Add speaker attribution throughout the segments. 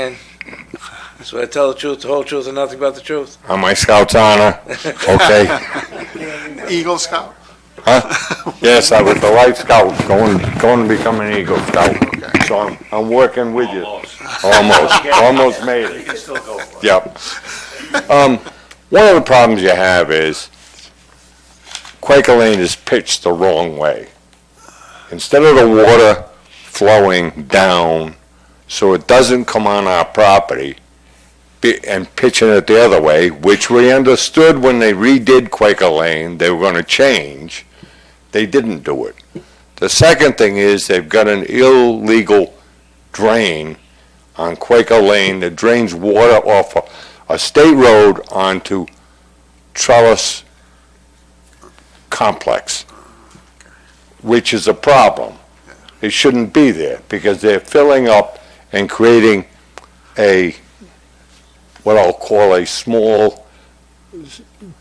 Speaker 1: And so I tell the truth, the whole truth, and nothing but the truth.
Speaker 2: On my scout's honor, okay?
Speaker 3: Eagle Scout?
Speaker 2: Huh? Yes, I was the Life Scout, going, going to become an Eagle Scout. So I'm, I'm working with you. Almost, almost made it.
Speaker 4: can still go for it.
Speaker 2: Yep. Um, one of the problems you have is Quaker Lane is pitched the wrong way. Instead of the water flowing down, so it doesn't come on our property, be- and pitching it the other way, which we understood when they redid Quaker Lane, they were gonna change, they didn't do it. The second thing is they've got an illegal drain on Quaker Lane that drains water off a, a state road onto Trellis Complex, which is a problem. It shouldn't be there because they're filling up and creating a, what I'll call a small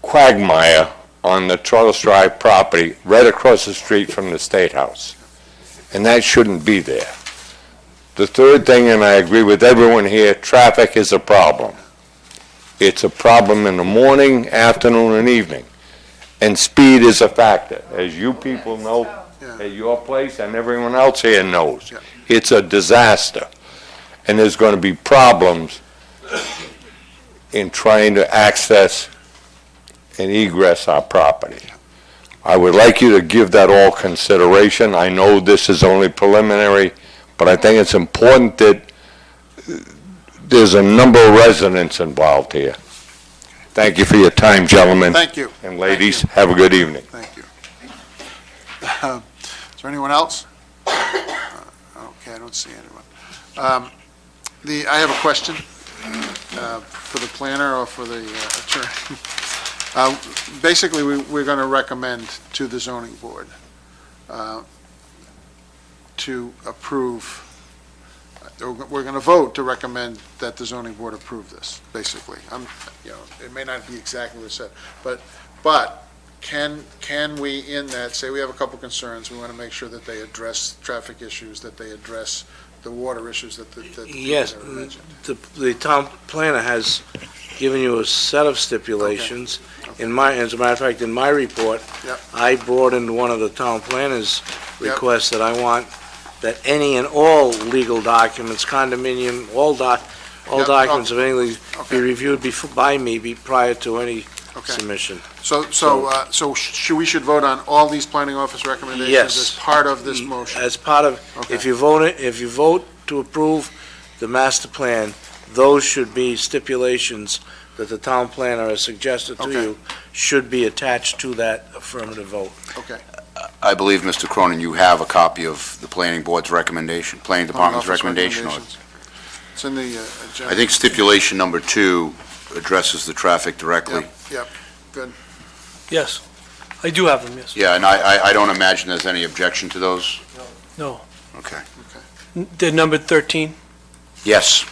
Speaker 2: quagmire on the Trellis Drive property right across the street from the State House. And that shouldn't be there. The third thing, and I agree with everyone here, traffic is a problem. It's a problem in the morning, afternoon, and evening. And speed is a factor, as you people know, at your place and everyone else here knows.
Speaker 3: Yeah.
Speaker 2: It's a disaster. And there's going to be problems in trying to access and egress our property. I would like you to give that all consideration. I know this is only preliminary, but I think it's important that uh, there's a number of residents involved here. Thank you for your time, gentlemen
Speaker 3: Thank you,
Speaker 2: and ladies. Have a good evening.
Speaker 3: thank you. Um, Is there anyone else? Uh, Okay, I don't see anyone. Um, The, I have a question uh, for the planner or for the uh, attorney. Uh, Basically, we- we're going to recommend to the zoning board uh, to approve, uh, we're going to vote to recommend that the zoning board approve this, basically. I'm, you know, it may not be exactly what it said, but, but can, can we in that, say we have a couple concerns, we want to make sure that they address traffic issues, that they address the water issues that the, that the
Speaker 1: Yes.
Speaker 3: people that are mentioned?
Speaker 1: The, the town planner has given you a set of stipulations. In my, as a matter of fact, in my report,
Speaker 3: Yep.
Speaker 1: I broadened one of the town planner's
Speaker 3: Yep.
Speaker 1: requests that I want that any and all legal documents, condominium, all doc, all
Speaker 3: Yep, Oh.
Speaker 1: documents of any, leg- be
Speaker 3: Okay,
Speaker 1: reviewed before, by me, be prior to any
Speaker 3: okay.
Speaker 1: submission.
Speaker 3: So, so, uh, so should, we should vote on all these planning office recommendations
Speaker 1: Yes.
Speaker 3: as part of this motion?
Speaker 1: As part of If
Speaker 3: Okay,
Speaker 1: you vote, it- if you vote to approve the master plan, those should be stipulations that the town planner has suggested to
Speaker 3: Okay.
Speaker 1: you should be attached to that affirmative vote.
Speaker 3: okay.
Speaker 5: I believe, Mr. Cronin, you have a copy of the planning board's recommendation, planning
Speaker 3: Planning
Speaker 5: department's
Speaker 3: office
Speaker 5: recommendation. on it.
Speaker 3: recommendations. It's in the uh, agenda.
Speaker 5: I think stipulation number two addresses the traffic directly.
Speaker 6: Yes, I do have them, yes.
Speaker 5: Yeah, and I, I- I don't imagine there's any objection to those.
Speaker 6: No.
Speaker 5: Okay.
Speaker 6: N- They're numbered 13?
Speaker 5: Yes.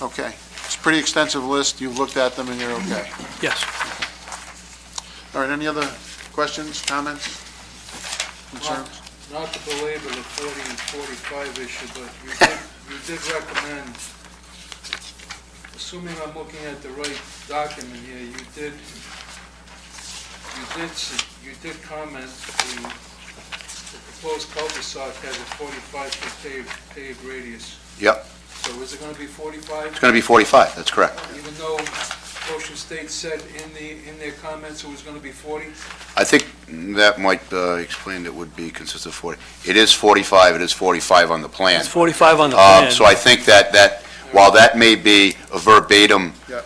Speaker 3: Okay, it's a pretty extensive list, you've looked at them and you're okay.
Speaker 6: Yes.
Speaker 3: All right, any other questions, comments, concerns?
Speaker 7: Not to belabor the 40 and 45 issue, but you did, you did recommend, assuming I'm looking at the right document here, you did, you did, s- you did comment the the proposed cul-de-sac has a 45-foot paved, paved radius.
Speaker 5: Yep.
Speaker 7: So is it going to be 45?
Speaker 5: It's going to be 45, that's correct.
Speaker 7: Even though Ocean State said in the, in their comments it was going to be 40?
Speaker 5: I think that might uh, explain it would be consistent 40. It is 45, it is 45 on the plan.
Speaker 6: It's 45 on the
Speaker 5: Um,
Speaker 6: plan.
Speaker 5: So I think that, that, while that may be a verbatim
Speaker 3: Yep.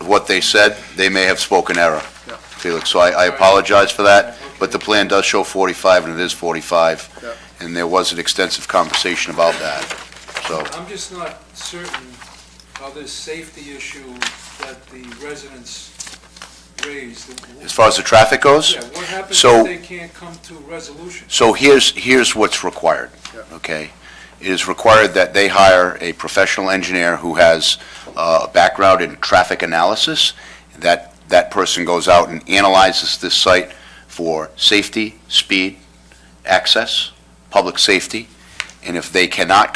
Speaker 5: of what they said, they may have spoken error,
Speaker 3: Yep.
Speaker 5: Felix. So I, I apologize for that, but the plan does show 45, and it is 45.
Speaker 3: Yep.
Speaker 5: And there was an extensive conversation about that, so.
Speaker 7: I'm just not certain how this safety issue that the residents raised.
Speaker 5: As far as the traffic goes?
Speaker 7: Yeah, what happens
Speaker 5: So-
Speaker 7: if they can't come to resolution?
Speaker 5: So here's, here's what's required,
Speaker 3: Yeah.
Speaker 5: okay? It is required that they hire a professional engineer who has uh, a background in traffic analysis, that, that person goes out and analyzes this site for safety, speed, access, public safety, and if they cannot